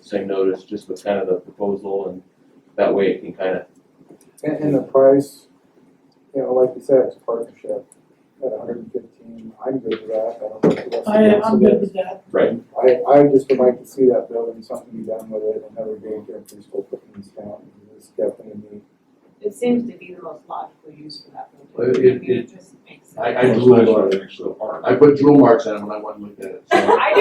same notice, just with kind of the proposal and that way it can kind of, And, and the price, you know, like you said, it's a partnership at hundred and fifteen, I'm good with that, I don't know what the rest of I, the I'm good with that. right? I, I just would like to see that building, something be done with it, another daycare preschool put in this town, it's definitely neat. It seems to be the most logical use for that Well, building. it- I mean, it just makes sense. I, I It's drew nice on when it. it actually apart. I put drill marks on it when I went and looked at it. so- I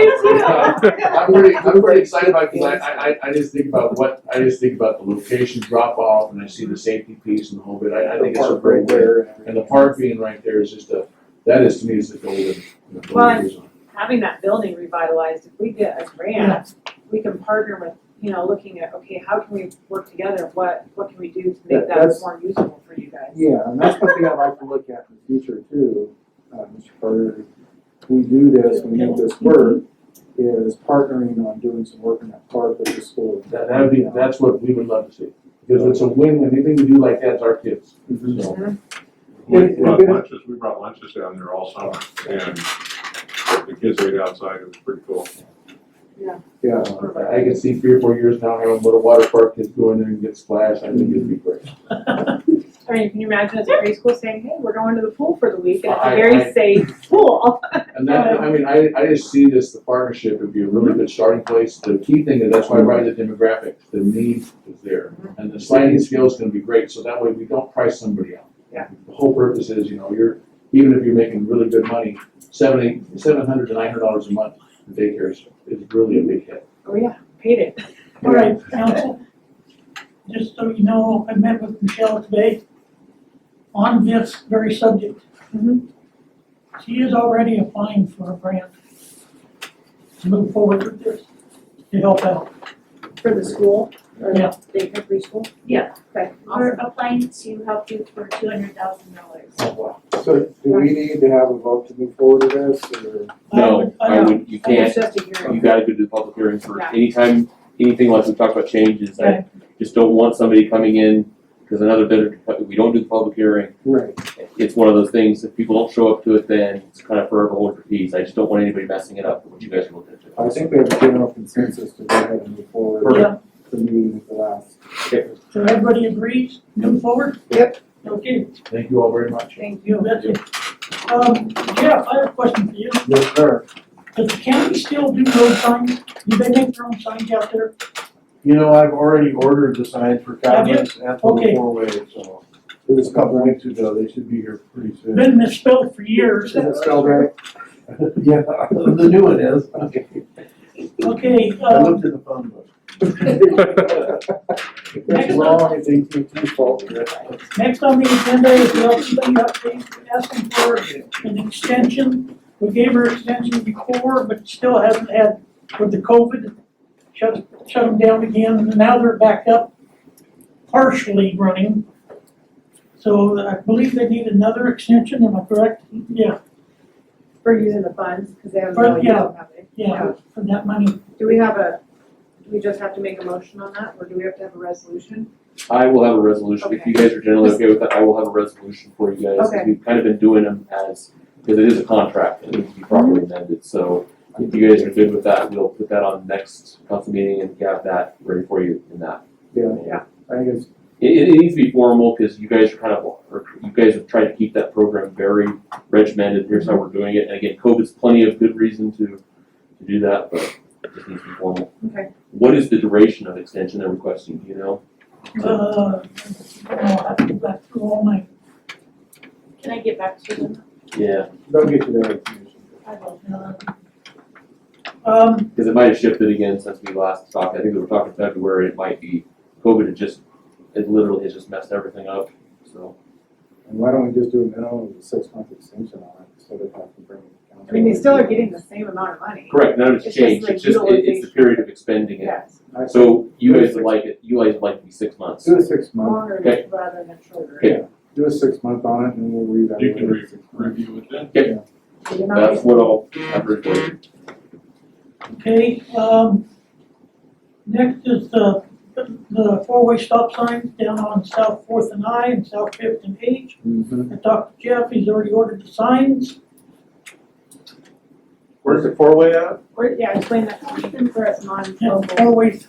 do too. I'm pretty, I'm pretty excited about, because I, I, I- I just think about what, I just think about the location drop off and I see the safety piece and the whole bit. I, I think it's a The park right great way. there and And the park being right there is just a, that is to me is the golden. the golden Well, reason. Having that building revitalized, if we get a grant, we can partner with, you know, looking at, okay, how can we work together? What, what can we do to Yeah, make that that's- more usable for you guys? Yeah, and that's something I'd like to look at in the future too, uh, Mr. Carter. If We do this, we make this work, is partnering on doing some work in that park with the school. That, that'd be, that's what we would love to see. Because it's a win, anything we do like that's our kids. Mhm. So, We It- it- brought it- lunches, we brought lunches down there all summer, and the kids ate outside, it was pretty cool. Yeah, uh, I I can see three or four years now, having a little water park, kids go in there and get splashed. I think it'd be great. I mean, can you imagine as a preschool saying, hey, we're going to the pool for the week, and it's I- a I- very safe pool. And that, I mean, I, I just see this, the partnership would be a really good starting place. The key thing is that's why I write the demographic, the need is there. Mm-hmm. And the sliding scale is gonna be great, so that way we don't price somebody out. Yeah. The whole purpose is, you know, you're, even if you're making really good money, seventy, seven hundred to nine hundred dollars a month in daycare is, is really a big hit. Oh, yeah, paid it. All right, council, just so you know, I met with Michelle today on this very subject. Mm-hmm. Mhm. She is already applying for a grant to move forward with this, to help out. For the school, or Yeah. the daycare preschool? Yeah. Okay, We're applying to help you for two hundred thousand dollars. so do we need to have a vote to move forward with this, or? No, I uh, I know. would, you I think it's can't, just a hearing. you gotta go to the public hearing first. Yeah. Anytime, anything like we talked about changes, I Right. just don't want somebody coming in, because another bidder, we don't do the public hearing. Right. It's one of those things, if people don't show up to it, then it's kind of forever hold your peace. I just don't want anybody messing it up, what you guys are looking to. I think we have a general consensus to go ahead and move forward Yeah, to meeting at the last. so everybody agrees, move forward? Yep. Okay, Thank you all very much. thank you, that's it. Um, Jeff, I have a question for you. Yes, sir. Does the county still do road signs? Do they make their own signs out there? You know, I've already ordered the signs for Have you? comments at Okay. the four-way, so Is just this a couple spelled right? weeks ago, they should be here pretty soon. Been misspelled for years. Is it spelled right? Yeah, the new one is. Okay. Okay, I um, looked in the phone book. It's wrong, it's AT&T's fault. next on the agenda is the LCD update, asking for an extension. We gave her extension before, but still hasn't had with the COVID. Shut, shut them down again, and now they're back up, partially running. So I believe they need another extension, am I correct? Yeah, For using the funds, because they haven't Well, really yeah. used them, have they? yeah, for that money. Do we have a, do we just have to make a motion on that, or do we have to have a resolution? I will have a resolution, if you guys are generally okay with that, I will have a resolution for you guys. Okay. We've kind of been doing them as, because it is a contract, it needs to be properly amended, so if you guys are good with that, we'll put that on next council meeting and have that ready for you in that. Yeah, Yeah. I think it's, It, it needs to be formal, because you guys are kind of, or you guys have tried to keep that program very regimented, here's how we're doing it, and again, COVID's plenty of good reason to, to do that, but it just needs to be formal. Okay. What is the duration of extension they're requesting, do you know? Uh, I'll have to go back through all my Can I get back to them? Yeah. they'll get you that information. Um, Because it might have shifted again since we last talked. I think we were talking February, it might be, COVID had just, it literally has just messed everything up, so. And why don't we just do a minimum of a six-month extension on it, instead of having to bring it to council? I mean, they still are getting the same amount of money. Correct, none of it's It's just changed, like it's just, it- it's the utilization. period of expending it. Yes, I think So you guys would like it, you guys would like it to be six months. Do a six-month, longer Okay. rather than shorter. Okay. do a six-month on it, and we'll reevaluate. You can it re- in six months. review it then. So you're not- That's what I'll, I've heard for you. okay, um, next is the, the four-way stop signs down on South Fourth and I and South Fifth and H. Mhm. I talked to Jeff, he's already ordered the signs. Where's the four-way at? Or, yeah, explain that, for us non-local. Always